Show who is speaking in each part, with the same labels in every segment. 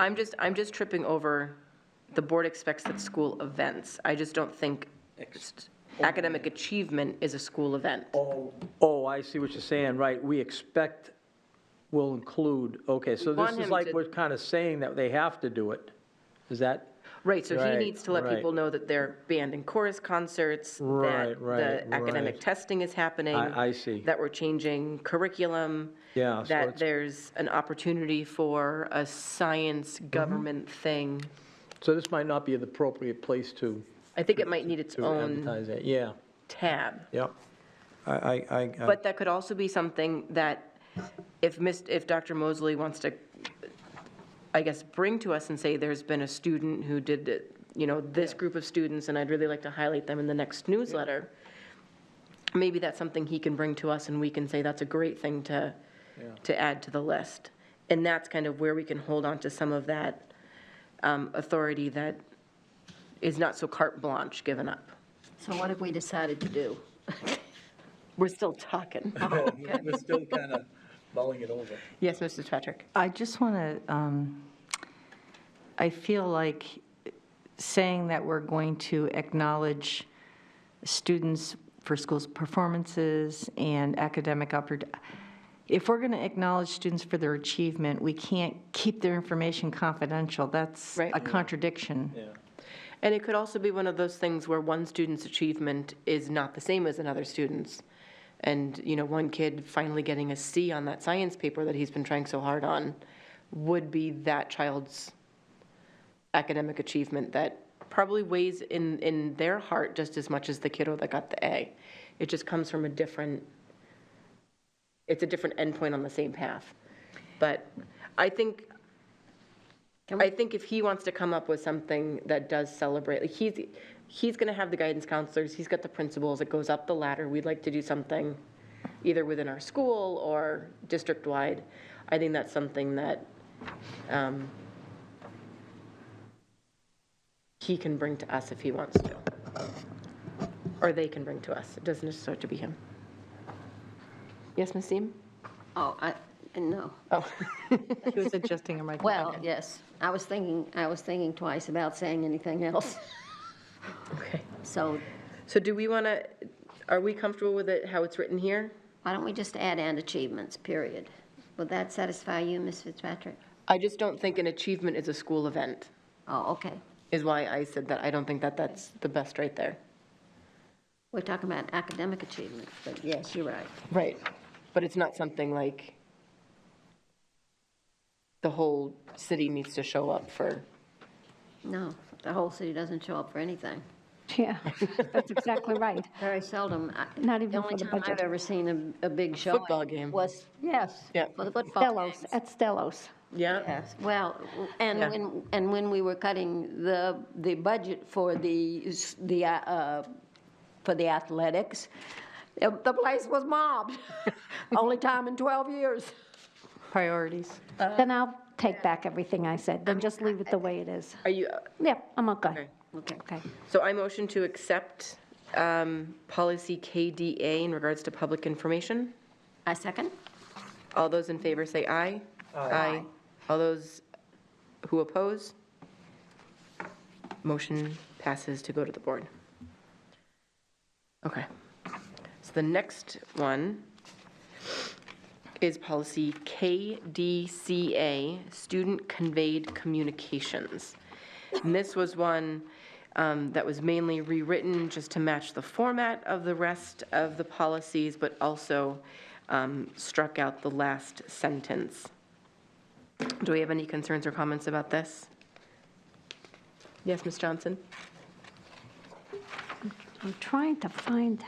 Speaker 1: I'm just, I'm just tripping over, the board expects that school events. I just don't think academic achievement is a school event.
Speaker 2: Oh, oh, I see what you're saying, right, we expect will include, okay, so
Speaker 1: want
Speaker 2: this is
Speaker 1: him
Speaker 2: like,
Speaker 1: to-
Speaker 2: we're kind of saying that they have to do it. Is that,
Speaker 1: Right, so he
Speaker 2: Right,
Speaker 1: needs to let
Speaker 2: right.
Speaker 1: people know that there are band and chorus concerts, that
Speaker 2: Right, right,
Speaker 1: the academic
Speaker 2: right.
Speaker 1: testing is happening.
Speaker 2: I- I see.
Speaker 1: That we're changing curriculum.
Speaker 2: Yeah, so
Speaker 1: That
Speaker 2: it's-
Speaker 1: there's an opportunity for a science
Speaker 2: Mm-hmm.
Speaker 1: government thing.
Speaker 2: so this might not be the appropriate place to,
Speaker 1: I think it might need its
Speaker 2: to
Speaker 1: own
Speaker 2: advertise that, yeah,
Speaker 1: tab.
Speaker 2: yeah. I, I- I, I,
Speaker 1: But that could also be something that if Miss, if Dr. Mosley wants to, I guess, bring to us and say, there's been a student who did, it, you know, this group of students, and I'd really like to highlight them in the next newsletter, maybe that's something he can bring to us and we can say, that's a great thing to, to add to the list. And that's kind of where we can hold on to some of that um, authority that is not so carte blanche given up.
Speaker 3: So what have we decided to do?
Speaker 1: We're still talking.
Speaker 2: We're still kind of mulling it over.
Speaker 1: Yes, Mrs. Patrick?
Speaker 4: I just want to, I feel like saying that we're going to acknowledge students for schools' performances and academic oppor, if we're going to acknowledge students for their achievement, we can't keep their information confidential. That's
Speaker 1: Right.
Speaker 4: a contradiction.
Speaker 1: And it could also be one of those things where one student's achievement is not the same as another student's. And, you know, one kid finally getting a C on that science paper that he's been trying so hard on would be that child's academic achievement that probably weighs in, in their heart just as much as the kiddo that got the A. It just comes from a different, it's a different endpoint on the same path. But I think, I think if he wants to come up with something that does celebrate, like he's, he's going to have the guidance counselors, he's got the principals, it goes up the ladder. We'd like to do something either within our school or district-wide. I think that's something that um, he can bring to us if he wants to. Or they can bring to us. It doesn't necessarily have to be him. Yes, Ms. Seem?
Speaker 3: Oh, I, no.
Speaker 1: Oh,
Speaker 4: She was adjusting her microphone.
Speaker 3: Well, yes, I was thinking, I was thinking twice about saying anything else.
Speaker 1: okay.
Speaker 3: So
Speaker 1: So do we want to, are we comfortable with it, how it's written here?
Speaker 3: why don't we just add and achievements, period? Would that satisfy you, Ms. Fitzpatrick?
Speaker 1: I just don't think an achievement is a school event,
Speaker 3: Oh, okay.
Speaker 1: is why I said that. I don't think that that's the best right there.
Speaker 3: We're talking about academic achievement, but yes, you're right.
Speaker 1: Right. But it's not something like the whole city needs to show up for.
Speaker 3: No, the whole city doesn't show up for anything.
Speaker 5: Yeah, that's exactly right.
Speaker 3: Very seldom. I-
Speaker 5: Not even for the
Speaker 3: The only time I've
Speaker 5: budget.
Speaker 3: ever seen a, a big showing.
Speaker 1: Football game.
Speaker 3: Was, yes.
Speaker 1: Yeah.
Speaker 3: For the football.
Speaker 5: Stellos,
Speaker 3: games.
Speaker 5: at Stellos.
Speaker 1: Yeah.
Speaker 3: Yes, well, and
Speaker 1: Yeah.
Speaker 3: when, and when we were cutting the, the budget for the, s- the, uh, uh, for the athletics, uh, the place was mobbed. Only time in 12 years.
Speaker 4: Priorities.
Speaker 5: Then I'll take back everything I said, then just leave it the way it is.
Speaker 1: Are you,
Speaker 5: Yep, I'm okay.
Speaker 1: Okay.
Speaker 3: Okay.
Speaker 5: Okay.
Speaker 1: So I motion to accept um, policy KDA in regards to public information.
Speaker 3: I second.
Speaker 1: All those in favor say aye. Aye. All those who oppose? Motion passes to go to the board. Okay. So the next one is policy KDCA, Student Conveyed Communications. And this was one um, that was mainly rewritten just to match the format of the rest of the policies, but also um, struck out the last sentence. Do we have any concerns or comments about this? Yes, Ms. Johnson?
Speaker 5: I'm trying to find,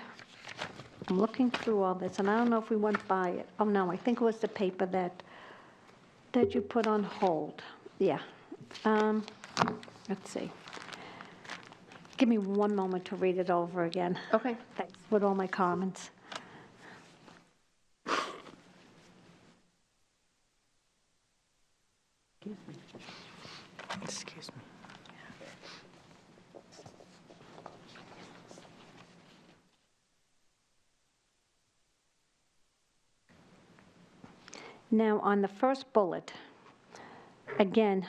Speaker 5: I'm looking through all this, and I don't know if we went by it. Oh, no, I think it was the paper that, that you put on hold. Yeah. Um, Let's see. Give me one moment to read it over again.
Speaker 1: Okay.
Speaker 5: Thanks, with all my comments.
Speaker 4: Excuse me.
Speaker 5: Now, on the first bullet, again,